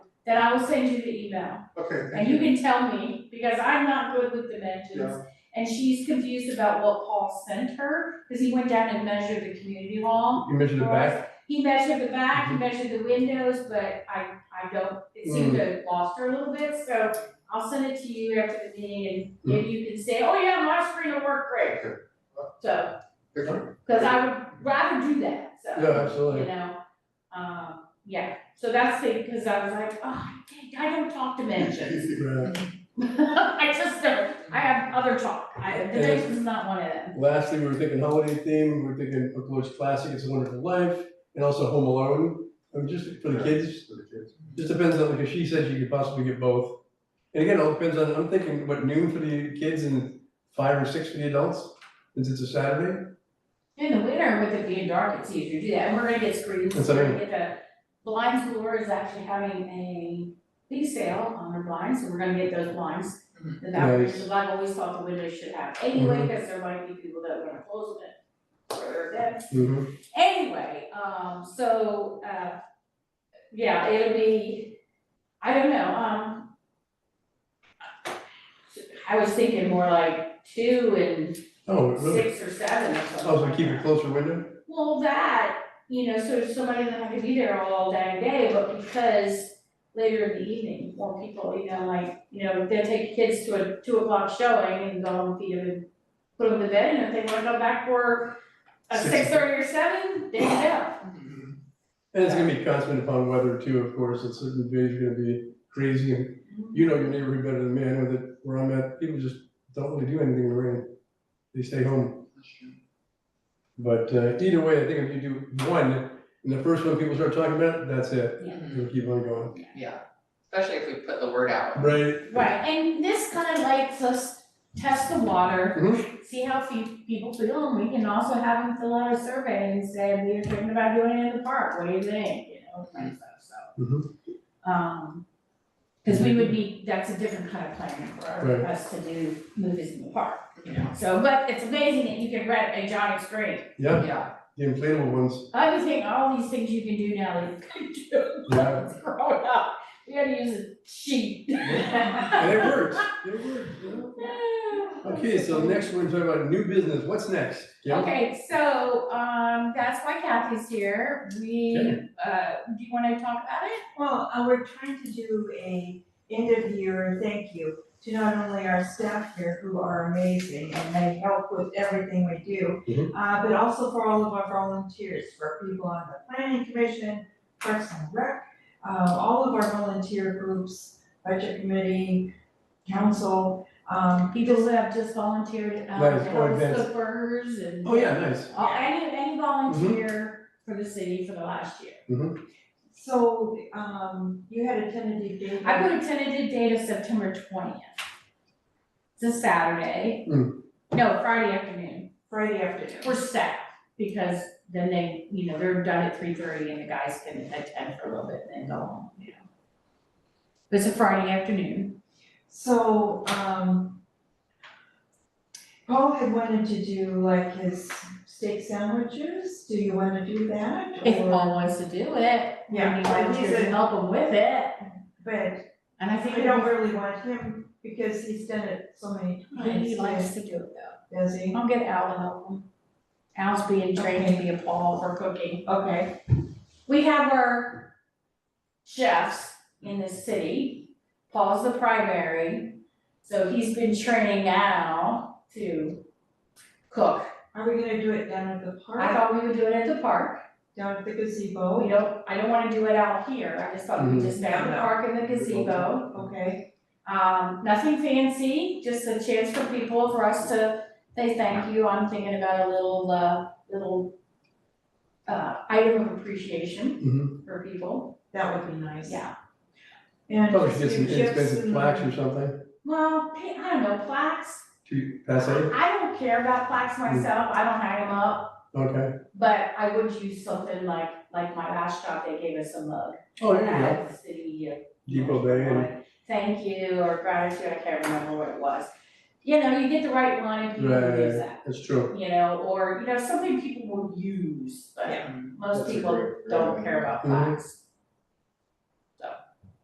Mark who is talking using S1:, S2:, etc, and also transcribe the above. S1: then I will send you the email.
S2: Okay,
S1: And
S2: thank
S1: you
S2: you.
S1: can tell me, because I'm not good with dimensions.
S2: Yeah.
S1: And she's confused about what Paul sent her, because he went down and measured the community hall.
S3: You mentioned the
S1: for
S3: back, Mm-hmm.
S1: us. He measured the back, he measured the windows, but I, I don't, it seemed to have lost her a little bit, so I'll send it to you after the meeting, and
S3: Mm-hmm.
S1: maybe you can say, oh yeah, my screen will work great.
S2: Okay.
S1: So,
S2: Excellent.
S1: because I would rather do that, so
S3: yeah, absolutely.
S1: you know? Um, yeah, so that's it, because I was like, oh, dang, I don't talk dimensions.
S3: Right.
S1: I just don't, I have other talk, I, dimensions is not one of them.
S3: Lastly, we were thinking holiday theme, we were thinking, of course, classic, It's a Wonderful Life, and also Home Alone. I mean, just for the kids,
S2: For the kids.
S3: just depends on, because she said she could possibly get both. And again, it all depends on, I'm thinking, what, noon for the kids and five or six for the adults, since it's a Saturday?
S1: In the winter, with it being dark, it's easier to do that, and we're gonna get screens,
S3: That's
S1: we're
S3: what I
S1: gonna get the, Blinds Lure is actually having a big sale on their blinds, so we're gonna get those blinds. And that,
S3: Mm-hmm. Nice. Mm-hmm.
S1: because I've always thought the windows should have anyway, because there might be people that wanna close them for their events.
S3: Mm-hmm.
S1: Anyway, um, so, uh, yeah, it'll be, I don't know, um. I was thinking more like two and
S3: Oh, really?
S1: six or seven or something.
S3: Also,
S1: like
S3: keep
S1: that.
S3: a closer window?
S1: Well, that, you know, so there's somebody that could be there all day and day, but because later in the evening, more people, you know, like, you know, they'll take kids to a two o'clock showing and go home, feed them and put them to bed, and if they wanna go back for a
S3: Six.
S1: six thirty or seven, they can go.
S3: And it's gonna be constant upon weather too, of course, it's certain days are gonna be crazy, and you know your neighborhood better than me, I know that where I'm at, people just don't really do anything in the rain. They stay home, but uh, either way, I think if you do one, and the first one people start talking about, that's it,
S4: Mhm.
S3: you'll keep on going.
S4: Yeah, especially if we put the word out.
S3: Right,
S1: Right, and this kind of lets us test the water,
S3: Mm-hmm.
S1: see how fe- people feel, and we can also have them fill out a survey and say, we're thinking about doing it in the park, what do you think, you know, kind of stuff, so.
S3: Mm-hmm.
S1: Um, cause we would be, that's a different kind of planning for
S3: Right.
S1: us to do movies in the park, you
S4: Yeah.
S1: know, so, but it's amazing that you can rent a giant screen.
S3: yeah,
S4: Yeah,
S3: the inflatable ones,
S1: I would think all these things you can do now that you couldn't do when I
S3: Yeah.
S1: was growing up, we had to use a sheet.
S3: and it works, it works, you know? Okay, so next we're talking about new business, what's next? Yeah,
S1: Okay, so, um, that's why Kathy's here, we, uh, do you wanna talk about it?
S5: Well, uh, we're trying to do a end of year thank you to not only our staff here who are amazing and they help with everything we do,
S3: Mhm.
S5: uh, but also for all of our volunteers, for people on the planning commission, Parks and Rec, uh, all of our volunteer groups, budget committee, council, um,
S1: People that have just volunteered, um,
S3: Right, or
S1: help
S3: events.
S1: cook burgers and.
S3: oh yeah, Mm-hmm. nice,
S1: Uh, any, any volunteer for the city for the last year.
S5: so, um, you had a tentative date.
S1: I put a tentative date of September twentieth. It's a Saturday.
S3: Mm.
S1: No, Friday afternoon,
S5: Friday afternoon.
S1: for staff, because then they, you know, they're done at three thirty and the guys can attend for a little bit and then go home, you know. It's a Friday afternoon.
S5: So, um, Paul had wanted to do like his steak sandwiches, do you wanna do that?
S1: If
S5: Or-
S1: Paul wants to do it, I
S5: Yeah,
S1: mean,
S5: but he's a,
S1: help him with it,
S5: but
S1: and I think
S5: I don't really want him because he's done it so many times.
S1: he likes to do it though.
S5: Does he?
S1: I'll get Al to help him. Al's being trained to be a Paul for cooking.
S5: Okay,
S1: We have our chefs in the city, Paul's the primary, so he's been training Al to cook.
S5: are we gonna do it down at the
S1: I
S5: park,
S1: thought we would do it at the park,
S5: down at the
S1: we
S5: gazebo?
S1: don't, I don't wanna do it out here, I just thought we'd
S3: Mhm.
S1: just have the
S5: No, no.
S1: park in the gazebo.
S5: Okay,
S1: Um, nothing fancy, just a chance for people, for us to say thank you, I'm thinking about a little, uh, little uh, item of appreciation
S3: Mhm.
S1: for people,
S5: that would be nice.
S1: yeah.
S5: And
S3: probably
S5: just
S3: should get some
S5: do chips
S3: inexpensive
S5: and-
S3: plaques or something
S1: Well, pa- I don't know, plaques,
S3: to pass out,
S1: I don't care about plaques myself, I don't hang them up,
S3: okay,
S1: but I would use something like, like my last job, they gave us a mug.
S3: oh, there
S1: And I
S3: you go,
S1: had the city, uh,
S3: Depot Bay and.
S1: Thank you, or gratitude, I can't remember what it was. You know, you get the right one and people
S3: Right.
S1: use that.
S3: That's true.
S1: you know, or, you know, something people will use, but
S4: Yeah.
S1: most
S3: That's a
S1: people
S3: great-
S1: don't care about
S3: Mhm.
S1: plaques.